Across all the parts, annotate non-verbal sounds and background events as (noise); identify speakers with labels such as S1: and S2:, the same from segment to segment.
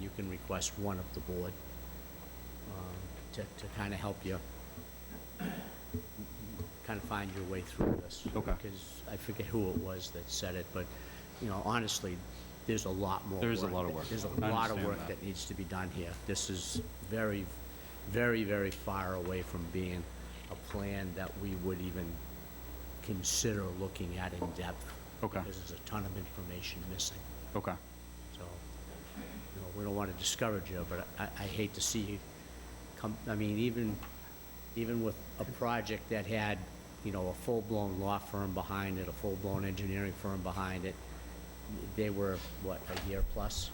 S1: you can request one of the board um, to, to kind of help you kind of find your way through this.
S2: Okay.
S1: Because I forget who it was that said it, but, you know, honestly, there's a lot more.
S2: There is a lot of work.
S1: There's a
S2: I
S1: lot of
S2: understand
S1: work
S2: that.
S1: that needs to be done here. This is very, very, very far away from being a plan that we would even consider looking at in depth.
S2: Okay.
S1: Because there's a ton of information missing.
S2: Okay.
S1: So, you know, we don't want to discourage you, but I, I hate to see you come, I mean, even, even with a project that had, you know, a full-blown law firm behind it, a full-blown engineering firm behind it, they were, what, a year plus?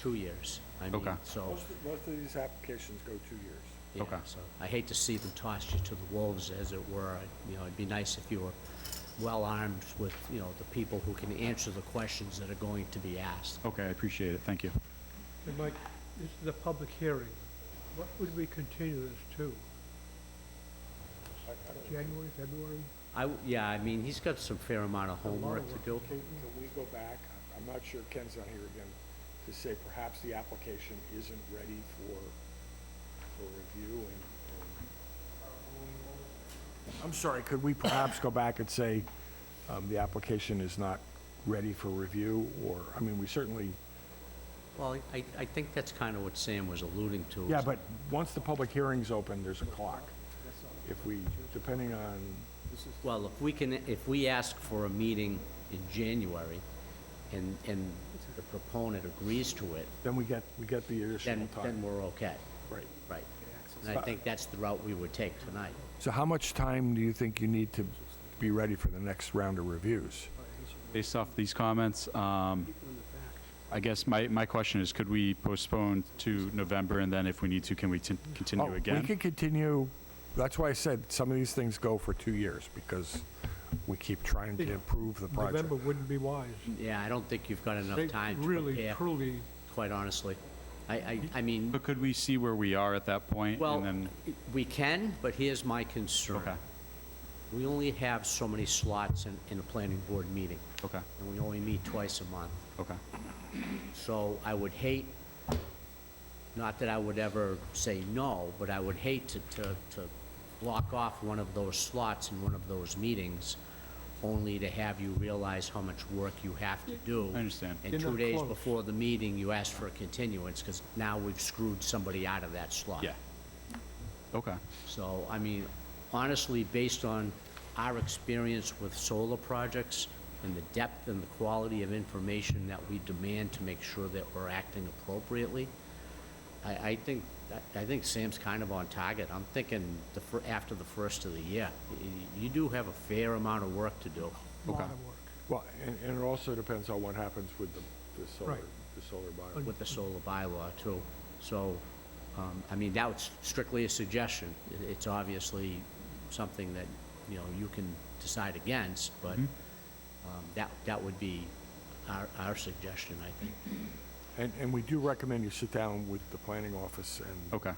S1: Two years. I mean,
S2: Okay.
S1: so,
S3: Most, of- most of these applications go two years.
S1: yeah,
S2: Okay.
S1: so I hate to see them toss you to the wolves, as it were. You know, it'd be nice if you were well-armed with, you know, the people who can answer the questions that are going to be asked.
S2: Okay, I appreciate it. Thank you.
S4: Hey, Mike, this is a public hearing. What would we continue this to? January, February?
S1: I, w- yeah, I mean, he's got some fair amount of homework to do.
S3: Can, can we go back, I'm not sure Ken's not here again, to say perhaps the application isn't ready for, for review and. and- I'm sorry, could we perhaps go back and say, um, the application is not ready for review, or, I mean, we certainly,
S1: Well, I, I think that's kind of what Sam was alluding to.
S3: yeah,
S1: is-
S3: but once the public hearing's open, there's a clock. If we, depending on,
S1: Well, if we can, if we ask for a meeting in January and, and the proponent agrees to it,
S3: then we get, we get the additional
S1: then, then
S3: time.
S1: we're okay,
S3: Right.
S1: right? And I think that's the route we would take tonight.
S3: So how much time do you think you need to be ready for the next round of reviews?
S2: Based off these comments, um, I guess my, my question is, could we postpone to November, and then if we need to, can we tin- continue
S3: Oh, we
S2: again?
S3: could continue, that's why I said some of these things go for two years, because we keep trying to improve the project.
S4: November wouldn't be wise.
S1: Yeah, I don't think you've got
S4: They
S1: enough time to
S4: Really,
S1: prepare,
S4: truly,
S1: quite honestly. I, I, I mean,
S2: But could we see where we are at that point, and
S1: well,
S2: then,
S1: we can, but here's my concern.
S2: Okay.
S1: We only have so many slots in, in a planning board meeting.
S2: okay,
S1: and we only meet twice a month.
S2: okay,
S1: So I would hate, not that I would ever say no, but I would hate to, to, to block off one of those slots in one of those meetings, only to have you realize how much work you have to do.
S2: I understand.
S1: And
S4: You're
S1: two
S4: not
S1: days
S4: close.
S1: before the meeting, you ask for a continuance, because now we've screwed somebody out of that slot.
S2: yeah. Okay,
S1: So, I mean, honestly, based on our experience with solar projects and the depth and the quality of information that we demand to make sure that we're acting appropriately, I, I think, I- I think Sam's kind of on target. I'm thinking the, fir- after the first of the year. Y- You do have a fair amount of work to do.
S4: lot
S2: Okay.
S4: of work.
S3: Well, and, and it also depends on what happens with the, the solar,
S4: Right.
S3: the solar bylaw.
S1: with the solar bylaw too. So, um, I mean, that was strictly a suggestion. It- It's obviously something that, you know, you can decide against, but
S4: Mm-hmm.
S1: um, that, that would be our, our suggestion, I think,
S3: And, and we do recommend you sit down with the planning office and.
S2: Okay.
S3: and-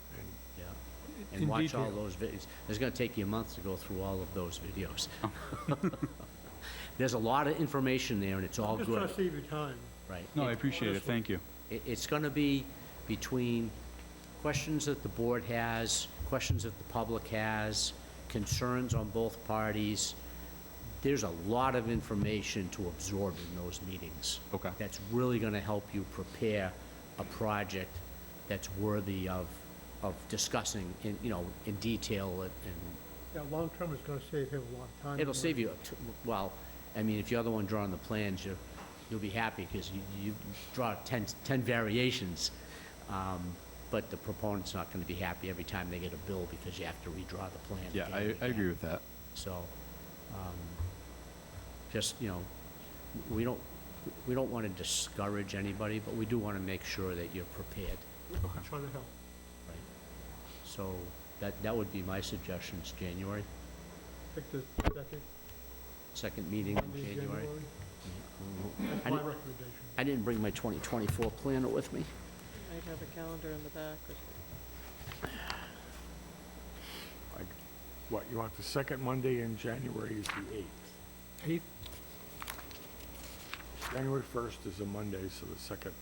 S1: yeah.
S4: In-
S1: And
S4: in
S1: watch all
S4: detail.
S1: those videos. It's gonna take you a month to go through all of those
S4: (laughs)
S1: videos. (laughs) There's a lot of information there, and it's all
S4: Just trying to
S1: good,
S4: save you time.
S1: right?
S2: no, I appreciate it, thank you.
S1: It, it's gonna be between questions that the board has, questions that the public has, concerns on both parties. There's a lot of information to absorb in those meetings.
S2: Okay.
S1: That's really gonna help you prepare a project that's worthy of, of discussing in, you know, in detail and, and
S4: Yeah, long-term is gonna save him a lot of time. and
S1: it'll
S4: money.
S1: save you, a t- well, I mean, if you're the one drawing the plans, you, you'll be happy, because you, you draw 10, 10 variations, um, but the proponent's not gonna be happy every time they get a bill, because you have to redraw the plan.
S2: Yeah,
S1: again
S2: I,
S1: and
S2: I agree
S1: again.
S2: with that.
S1: So, um, just, you know, we don't, we don't wanna discourage anybody, but we do wanna make sure that you're prepared,
S4: I'm Trying to help.
S1: right? So, that, that would be my suggestions, January,
S4: Pick the second
S1: second meeting
S4: Monday,
S1: in
S4: January.
S1: January.
S4: That's
S1: I
S4: my
S1: didn't-
S4: recommendation.
S1: I didn't bring my 2024 planner with me.
S5: I'd have a calendar in the back or
S3: like, What, you want the second Monday in January is the eighth.
S4: Eighth,
S3: January first is a Monday, so the second